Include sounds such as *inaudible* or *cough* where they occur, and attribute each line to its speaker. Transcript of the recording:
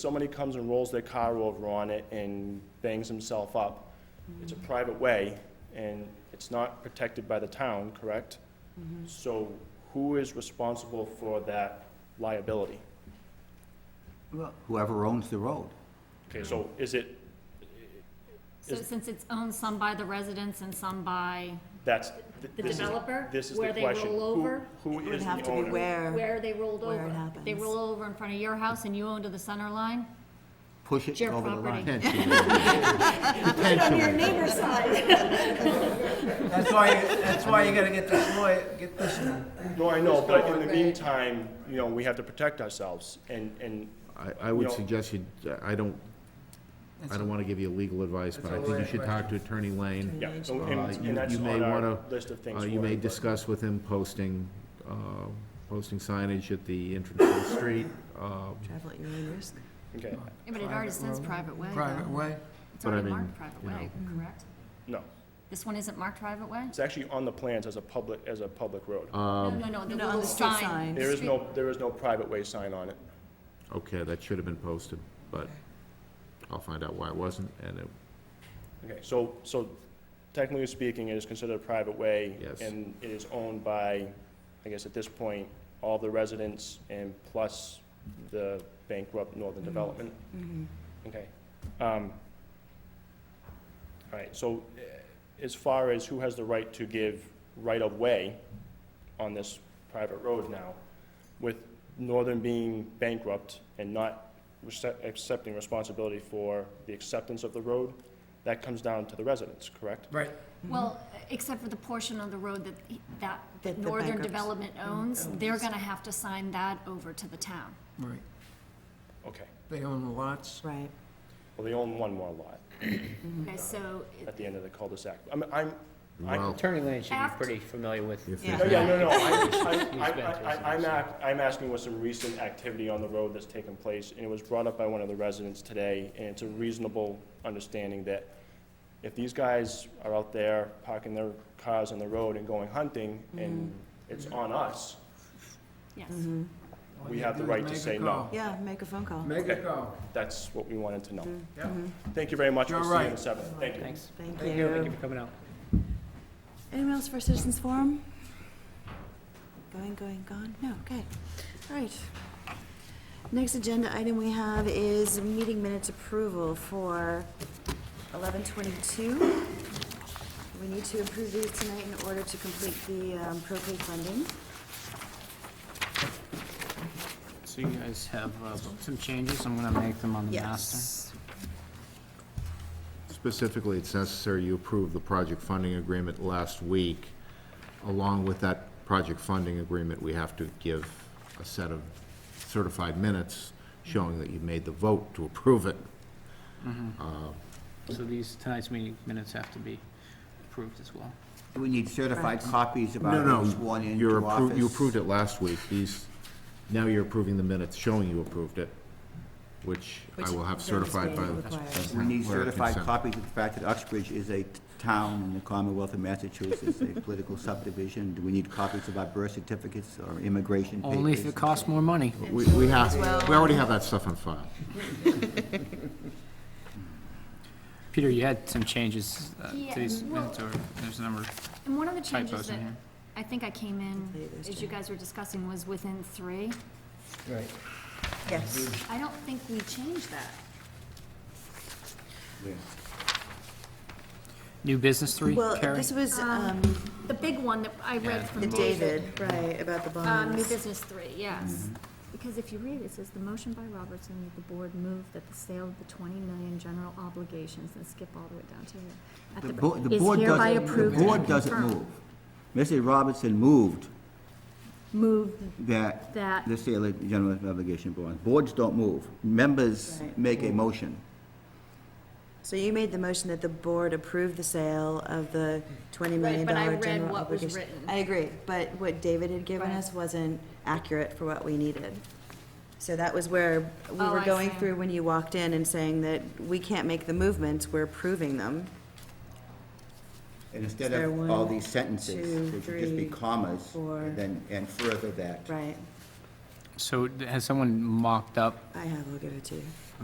Speaker 1: somebody comes and rolls their car over on it and bangs himself up, it's a private way, and it's not protected by the town, correct? So who is responsible for that liability?
Speaker 2: Well, Whoever owns the road.
Speaker 1: Okay, so is it,
Speaker 3: So
Speaker 1: Is-
Speaker 3: since it's owned some by the residents and some by
Speaker 1: that's. th-
Speaker 3: the
Speaker 1: this is-
Speaker 3: developer,
Speaker 1: This is the
Speaker 3: where
Speaker 1: question.
Speaker 3: they roll
Speaker 1: Who-
Speaker 3: over,
Speaker 1: Who
Speaker 4: Would
Speaker 1: is
Speaker 4: have
Speaker 1: the
Speaker 4: to be
Speaker 1: owner?
Speaker 4: where,
Speaker 3: where they rolled over.
Speaker 4: Where it
Speaker 3: If They
Speaker 4: happens.
Speaker 3: roll over in front of your house and you own to the center line?
Speaker 2: Push it
Speaker 3: Your
Speaker 2: over the line.
Speaker 3: property.
Speaker 2: Potentially.
Speaker 4: neighbor's side.
Speaker 5: That's why, that's why you gotta get this lawyer, get this,
Speaker 1: No, I know, but in the meantime, you know, we have to protect ourselves, and, and
Speaker 6: I, I would
Speaker 1: No.
Speaker 6: suggest you, I don't, I don't wanna give you legal advice, but I
Speaker 5: That's a
Speaker 6: think you
Speaker 5: lawyer
Speaker 6: should talk to Attorney Lane.
Speaker 1: Yeah, and,
Speaker 6: Uh,
Speaker 1: and-
Speaker 6: you-
Speaker 1: and that's
Speaker 6: you may
Speaker 1: on our
Speaker 6: wanna-
Speaker 1: list of things.
Speaker 6: Uh, you
Speaker 1: for
Speaker 6: may
Speaker 1: it, but-
Speaker 6: discuss with him posting, uh, posting signage at the entrance to the street. uh,
Speaker 4: Travel at your own risk.
Speaker 1: Okay,
Speaker 3: Yeah, but it already says private way,
Speaker 5: private
Speaker 3: though.
Speaker 5: way.
Speaker 3: It's
Speaker 6: But I
Speaker 3: already
Speaker 6: mean,
Speaker 3: marked private
Speaker 6: you
Speaker 3: way,
Speaker 4: Mm-hmm.
Speaker 3: correct?
Speaker 1: no,
Speaker 3: This one isn't marked private way?
Speaker 1: it's actually on the plans as a public, as a public road.
Speaker 3: No,
Speaker 6: Um,
Speaker 3: no, no, the
Speaker 4: No, on the
Speaker 3: little
Speaker 4: street
Speaker 3: sign.
Speaker 4: sign.
Speaker 1: There is no, there is no private way sign on it.
Speaker 6: Okay, that should have been posted, but I'll find out why it wasn't, and it,
Speaker 1: Okay, so, so technically speaking, it is considered a private way.
Speaker 6: Yes.
Speaker 1: And it is owned by, I guess at this point, all the residents and plus the bankrupt Northern Development. Okay. um, All right, so eh, as far as who has the right to give right-of-way on this private road now, with Northern being bankrupt and not recep- accepting responsibility for the acceptance of the road, that comes down to the residents, correct?
Speaker 5: Right.
Speaker 4: Mm-hmm.
Speaker 3: Well, except for the portion of the road that, he-
Speaker 4: That
Speaker 3: that
Speaker 4: the Mm-hmm.
Speaker 3: Northern
Speaker 4: bankrupts-
Speaker 3: Development owns, they're gonna have to sign that over to the town.
Speaker 5: Right.
Speaker 1: Okay,
Speaker 5: They own the lots.
Speaker 4: Right.
Speaker 1: well, they own one more lot
Speaker 4: Mm-hmm.
Speaker 3: Okay, so it-
Speaker 1: at the end of the cul-de-sac. I'm,
Speaker 5: *laughs*
Speaker 1: I'm, I'm,
Speaker 6: well,
Speaker 7: Attorney Lane should be
Speaker 3: Act-
Speaker 7: pretty familiar with.
Speaker 6: if
Speaker 4: Yeah.
Speaker 1: no,
Speaker 6: there's,
Speaker 1: yeah, no, no, I-
Speaker 7: been
Speaker 1: I-
Speaker 7: through
Speaker 1: I-
Speaker 7: some
Speaker 1: I- I'm,
Speaker 7: stuff.
Speaker 1: ac- I'm asking with some recent activity on the road that's taken place, and it was brought up by one of the residents today, and it's a reasonable understanding that if these guys are out there parking their cars on the road and going hunting, and
Speaker 5: Mm-hmm.
Speaker 1: it's on us,
Speaker 3: yes.
Speaker 4: Mm-hmm.
Speaker 5: All
Speaker 1: We
Speaker 5: you
Speaker 1: have the
Speaker 5: do is
Speaker 1: right to
Speaker 5: make a
Speaker 1: say no.
Speaker 5: call.
Speaker 4: Yeah, make a phone call.
Speaker 5: Make a
Speaker 1: Okay.
Speaker 5: call.
Speaker 1: that's what we wanted to know.
Speaker 5: Yeah.
Speaker 1: Thank you very much. We'll
Speaker 5: Mm-hmm.
Speaker 1: see
Speaker 5: You're
Speaker 1: you on
Speaker 5: right.
Speaker 1: the seventh. Thank you.
Speaker 7: Thanks.
Speaker 4: Thank
Speaker 5: Thank you.
Speaker 7: Thank you
Speaker 4: you.
Speaker 7: for coming out.
Speaker 4: Anyone else for citizens forum? Going, going, gone? No, okay. All right. Next agenda item we have is meeting minutes approval for eleven twenty-two. We need to approve these tonight in order to complete the um, propane funding.
Speaker 7: So you guys have uh, some changes, I'm gonna make them on the master.
Speaker 6: specifically, it's necessary you approve the project funding agreement last week. Along with that project funding agreement, we have to give a set of certified minutes showing that you've made the vote to approve it.
Speaker 7: So these, tonight's meeting minutes have to be approved as well.
Speaker 2: Do we need certified copies
Speaker 6: No,
Speaker 2: about each
Speaker 6: no,
Speaker 2: one
Speaker 6: you're
Speaker 2: into
Speaker 6: appro-
Speaker 2: office?
Speaker 6: you approved it last week, these, now you're approving the minutes showing you approved it, which I will have
Speaker 4: Which
Speaker 6: certified by.
Speaker 4: doesn't
Speaker 6: the
Speaker 4: require-
Speaker 2: We need
Speaker 6: clerk and
Speaker 2: certified
Speaker 6: sent.
Speaker 2: copies of the fact that Uxbridge is a t- town in the Commonwealth of Massachusetts, a political subdivision. Do we need copies of our birth certificates or immigration papers?
Speaker 7: Only if it costs more money.
Speaker 6: We, we have, we already have that stuff on file.
Speaker 7: Peter, you had some changes uh,
Speaker 3: Yeah,
Speaker 7: to these
Speaker 3: well-
Speaker 7: minutes, or there's a number.
Speaker 3: And one of the changes
Speaker 7: Typos in
Speaker 3: that
Speaker 7: here.
Speaker 3: I think I came in,
Speaker 4: Complete this
Speaker 3: as you guys were discussing, was within three.
Speaker 5: Right.
Speaker 4: Yes.
Speaker 3: I don't think we changed that.
Speaker 7: New business three,
Speaker 4: Well,
Speaker 7: Carrie?
Speaker 4: this was, um,
Speaker 3: The big one that I read
Speaker 7: Yeah.
Speaker 3: from
Speaker 4: the
Speaker 3: David.
Speaker 4: David, right, about the
Speaker 3: Uh, new
Speaker 4: bonds.
Speaker 3: business three, yes.
Speaker 2: Mm-hmm.
Speaker 3: Because if you read, it says, "The motion by Robertson that the board move that the sale of the twenty million general obligations," and skip all the way down to here. at
Speaker 2: The bo- the
Speaker 3: is
Speaker 2: board
Speaker 3: hereby
Speaker 2: doesn't-
Speaker 3: approved
Speaker 2: The
Speaker 3: and
Speaker 2: board doesn't
Speaker 3: confirmed.
Speaker 2: move. Mrs. Robertson moved
Speaker 3: Move
Speaker 2: that,
Speaker 3: that,
Speaker 2: the sale of general obligation bonds. Boards don't move. Members make a motion.
Speaker 4: So you made the motion that the board approve the sale of the twenty million
Speaker 3: Right, but I
Speaker 4: dollar
Speaker 3: read
Speaker 4: general
Speaker 3: what was
Speaker 4: obligation.
Speaker 3: written.
Speaker 4: I agree, but what David had given
Speaker 3: Right.
Speaker 4: us wasn't accurate for what we needed. So that was where we
Speaker 3: Oh,
Speaker 4: were
Speaker 3: I
Speaker 4: going
Speaker 3: see.
Speaker 4: through when you walked in and saying that we can't make the movements, we're approving them.
Speaker 2: And instead
Speaker 4: There
Speaker 2: of all
Speaker 4: one,
Speaker 2: these
Speaker 4: two,
Speaker 2: sentences, they should just be
Speaker 4: three,
Speaker 2: commas,
Speaker 4: four.
Speaker 2: and then, and further that.
Speaker 4: Right,
Speaker 7: So has someone mocked up
Speaker 4: I have, I'll give it to you.